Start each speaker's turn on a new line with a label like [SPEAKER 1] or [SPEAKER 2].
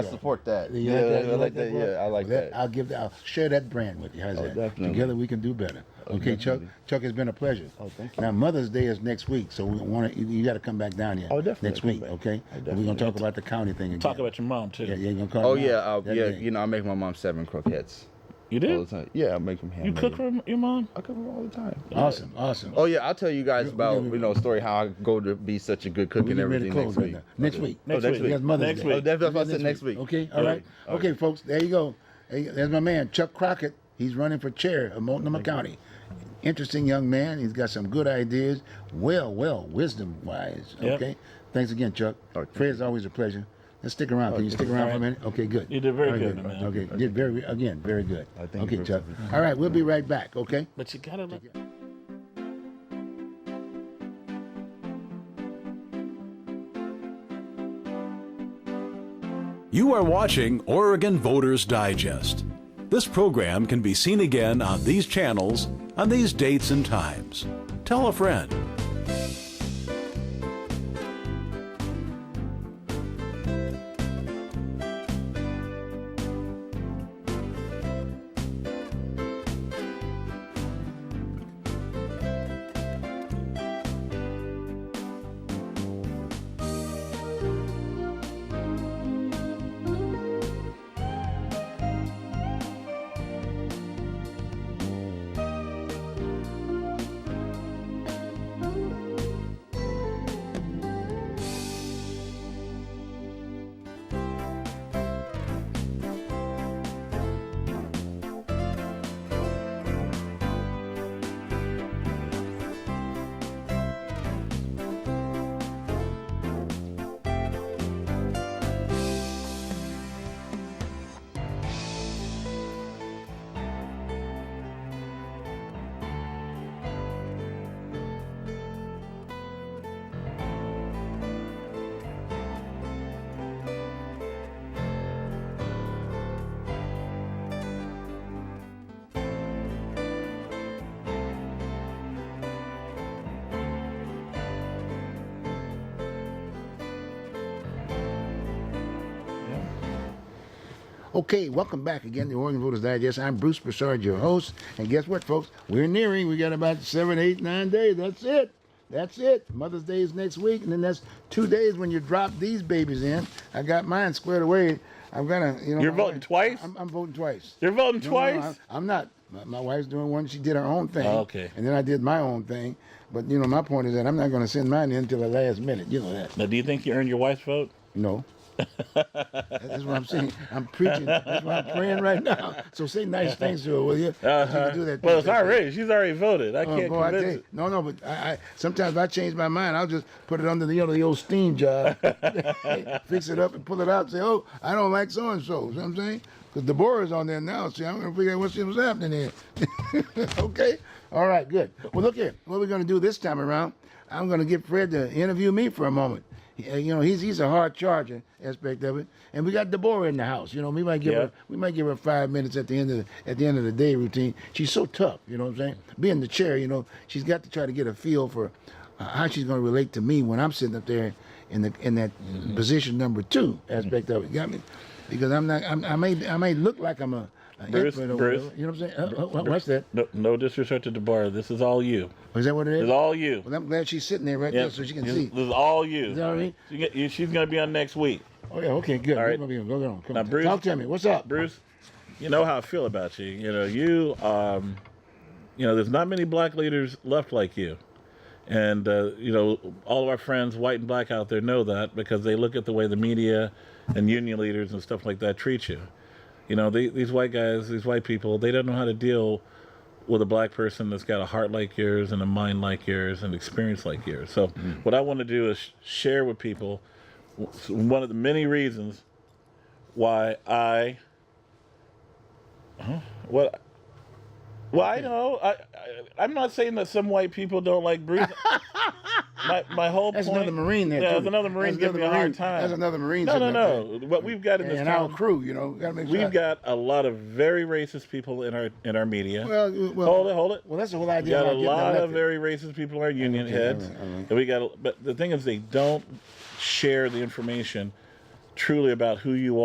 [SPEAKER 1] I support that.
[SPEAKER 2] You
[SPEAKER 1] yeah,
[SPEAKER 2] that? You
[SPEAKER 1] I like that.
[SPEAKER 2] bro?
[SPEAKER 1] Yeah, I like
[SPEAKER 2] Let-
[SPEAKER 1] that.
[SPEAKER 2] I'll give that. I'll share that brand with you. How's
[SPEAKER 1] Oh,
[SPEAKER 2] that?
[SPEAKER 1] definitely.
[SPEAKER 2] Together we can do better. okay, Chuck. Chuck, it's been a pleasure.
[SPEAKER 1] Oh, thank you.
[SPEAKER 2] Now Mother's Day is next week, so we want to. You, you got to come back down here.
[SPEAKER 1] Oh, definitely
[SPEAKER 2] Next
[SPEAKER 1] come
[SPEAKER 2] week,
[SPEAKER 1] back.
[SPEAKER 2] okay?
[SPEAKER 1] Oh,
[SPEAKER 2] And We're gonna
[SPEAKER 1] definitely.
[SPEAKER 2] talk about the county thing again.
[SPEAKER 3] Talk about your mom too.
[SPEAKER 2] Yeah, yeah, you gonna call.
[SPEAKER 1] oh
[SPEAKER 2] her
[SPEAKER 1] yeah,
[SPEAKER 2] out?
[SPEAKER 1] I'll,
[SPEAKER 2] That
[SPEAKER 1] yeah.
[SPEAKER 2] thing.
[SPEAKER 1] You know, I make my mom seven croquettes.
[SPEAKER 3] You
[SPEAKER 1] All the
[SPEAKER 3] did?
[SPEAKER 1] time. Yeah, I make them
[SPEAKER 3] You
[SPEAKER 1] handmade.
[SPEAKER 3] cook for your mom?
[SPEAKER 1] I cook them all the time.
[SPEAKER 2] Awesome, awesome.
[SPEAKER 1] Oh yeah, I'll tell you guys about
[SPEAKER 2] yeah.
[SPEAKER 1] you know a story how I go to be such a good cook
[SPEAKER 2] We're
[SPEAKER 1] and
[SPEAKER 2] getting ready
[SPEAKER 1] everything
[SPEAKER 2] to
[SPEAKER 1] next
[SPEAKER 2] close right
[SPEAKER 1] week.
[SPEAKER 2] now. Next week.
[SPEAKER 3] Next
[SPEAKER 1] week.
[SPEAKER 2] That's Mother's
[SPEAKER 3] Next
[SPEAKER 2] Day.
[SPEAKER 3] week.
[SPEAKER 1] Oh, that's what I said next week.
[SPEAKER 2] Okay, all right.
[SPEAKER 1] All
[SPEAKER 2] okay, folks, there you go. Hey, There's my man, Chuck Crockett. He's running for chair of Multnomah County. Interesting young man. He's got some good ideas. Well, well, wisdom wise.
[SPEAKER 3] Yep.
[SPEAKER 2] Okay. Thanks again, Chuck.
[SPEAKER 1] All right.
[SPEAKER 2] Fred, it's always a pleasure. Let's stick around. Can you stick around for a minute? Okay, good.
[SPEAKER 3] You did very good, my man.
[SPEAKER 2] Okay, did very again, very good.
[SPEAKER 1] I thank
[SPEAKER 2] Okay,
[SPEAKER 1] you
[SPEAKER 2] Chuck.
[SPEAKER 1] very
[SPEAKER 2] All right, we'll be right back. Okay.
[SPEAKER 3] But you gotta let
[SPEAKER 4] You are watching Oregon Voters Digest. This program can be seen again on these channels on these dates and times. Tell a friend.
[SPEAKER 2] Okay, welcome back again to Oregon Voters Digest. I'm Bruce Broussard, your host. And guess what, folks? We're nearing. We got about seven, eight, nine days. That's it. That's it. Mother's Day is next week, and then that's two days when you drop these babies in. I got mine squared away. I'm gonna, you know.
[SPEAKER 3] You're
[SPEAKER 2] my
[SPEAKER 3] voting
[SPEAKER 2] wife-
[SPEAKER 3] twice?
[SPEAKER 2] I'm, I'm voting twice.
[SPEAKER 3] You're voting
[SPEAKER 2] No, no,
[SPEAKER 3] twice?
[SPEAKER 2] I, am not. My, my wife's doing one. She did her own thing.
[SPEAKER 3] Oh, okay.
[SPEAKER 2] And then I did my own thing. But you know, my point is that I'm not going to send mine in until the last minute. You know that.
[SPEAKER 3] Now, do you think you earned your wife's vote?
[SPEAKER 2] No. That's what I'm saying. I'm preaching. That's why I'm praying right now. So say nice things to her, will you? You can do that.
[SPEAKER 3] Uh-huh. Well, it's already. She's already voted. I
[SPEAKER 2] Oh,
[SPEAKER 3] can't
[SPEAKER 2] boy, I tell
[SPEAKER 3] convince
[SPEAKER 2] you, no, no, but I, I sometimes I change my mind. I'll just put it under the, you know, the old steam job, fix it up and pull it out. And say, oh, I don't like so and so. You know what I'm saying? Because Deborah's on there now. See, I'm gonna figure out what's, what's happening here. okay, all right, good. Well, look here. What we're gonna do this time around? I'm gonna get Fred to interview me for a moment. Uh, You know, he's he's a hard charger aspect of it, and we got Deborah in the house. You know, we might give
[SPEAKER 3] Yeah.
[SPEAKER 2] her we might give her five minutes at the end of the, at the end of the day routine. She's so tough, you know what I'm saying? Being the chair, you know, she's got to try to get a feel for uh, how she's going to relate to me when I'm sitting up there in the in that
[SPEAKER 3] Mm-hmm.
[SPEAKER 2] position number two aspect of it. Got me? Because I'm not. I'm, I may I may look like I'm a, a
[SPEAKER 3] Bruce,
[SPEAKER 2] hypocrite or
[SPEAKER 3] Bruce.
[SPEAKER 2] whatever, you know what I'm saying? Uh, uh, what- what's that?
[SPEAKER 3] No, no disrespect to Deborah. This is all you.
[SPEAKER 2] Is that what it
[SPEAKER 3] This
[SPEAKER 2] is?
[SPEAKER 3] is all you.
[SPEAKER 2] well, I'm glad she's sitting there right
[SPEAKER 3] Yeah,
[SPEAKER 2] there so she can
[SPEAKER 3] this,
[SPEAKER 2] see.
[SPEAKER 3] This is all you.
[SPEAKER 2] Is that all right?
[SPEAKER 3] She get- you- she's gonna be on next week.
[SPEAKER 2] Oh yeah. Okay. Good.
[SPEAKER 3] All right.
[SPEAKER 2] Go on. Go on. Come
[SPEAKER 3] Now,
[SPEAKER 2] on.
[SPEAKER 3] Bruce-
[SPEAKER 2] Talk to me. What's up?
[SPEAKER 3] Bruce, you know how I feel about you. You know, you, um, you know, there's not many black leaders left like you. And, uh, you know, all of our friends, white and black out there, know that because they look at the way the media and union leaders and stuff like that treat you. You know, they, these white guys, these white people, they don't know how to deal with a black person that's got a heart like yours and a mind like yours and experience like yours. So,
[SPEAKER 2] Mm.
[SPEAKER 3] what I want to do is sh- share with people w- one of the many reasons why I what? Well, I know. I, I I'm not saying that some white people don't like Bruce. my my whole
[SPEAKER 2] That's
[SPEAKER 3] point.
[SPEAKER 2] another Marine there.
[SPEAKER 3] Yeah,
[SPEAKER 2] too.
[SPEAKER 3] there's another Marine
[SPEAKER 2] That's
[SPEAKER 3] giving me a
[SPEAKER 2] another
[SPEAKER 3] hard
[SPEAKER 2] Marine.
[SPEAKER 3] time.
[SPEAKER 2] That's another Marine.
[SPEAKER 3] No, no,
[SPEAKER 2] sitting up there.
[SPEAKER 3] no. What we've got in this
[SPEAKER 2] and our
[SPEAKER 3] town,
[SPEAKER 2] crew, you know, gotta make sure.
[SPEAKER 3] we've got a lot of very racist people in our in our media.
[SPEAKER 2] Well, you- well-
[SPEAKER 3] hold it, hold it.
[SPEAKER 2] Well, that's the whole
[SPEAKER 3] We
[SPEAKER 2] idea.
[SPEAKER 3] got a
[SPEAKER 2] about getting
[SPEAKER 3] lot
[SPEAKER 2] elected.
[SPEAKER 3] of very racist people in our union heads,
[SPEAKER 2] all right, all right.
[SPEAKER 3] and we got. a- But the thing is, they don't share the information truly about who you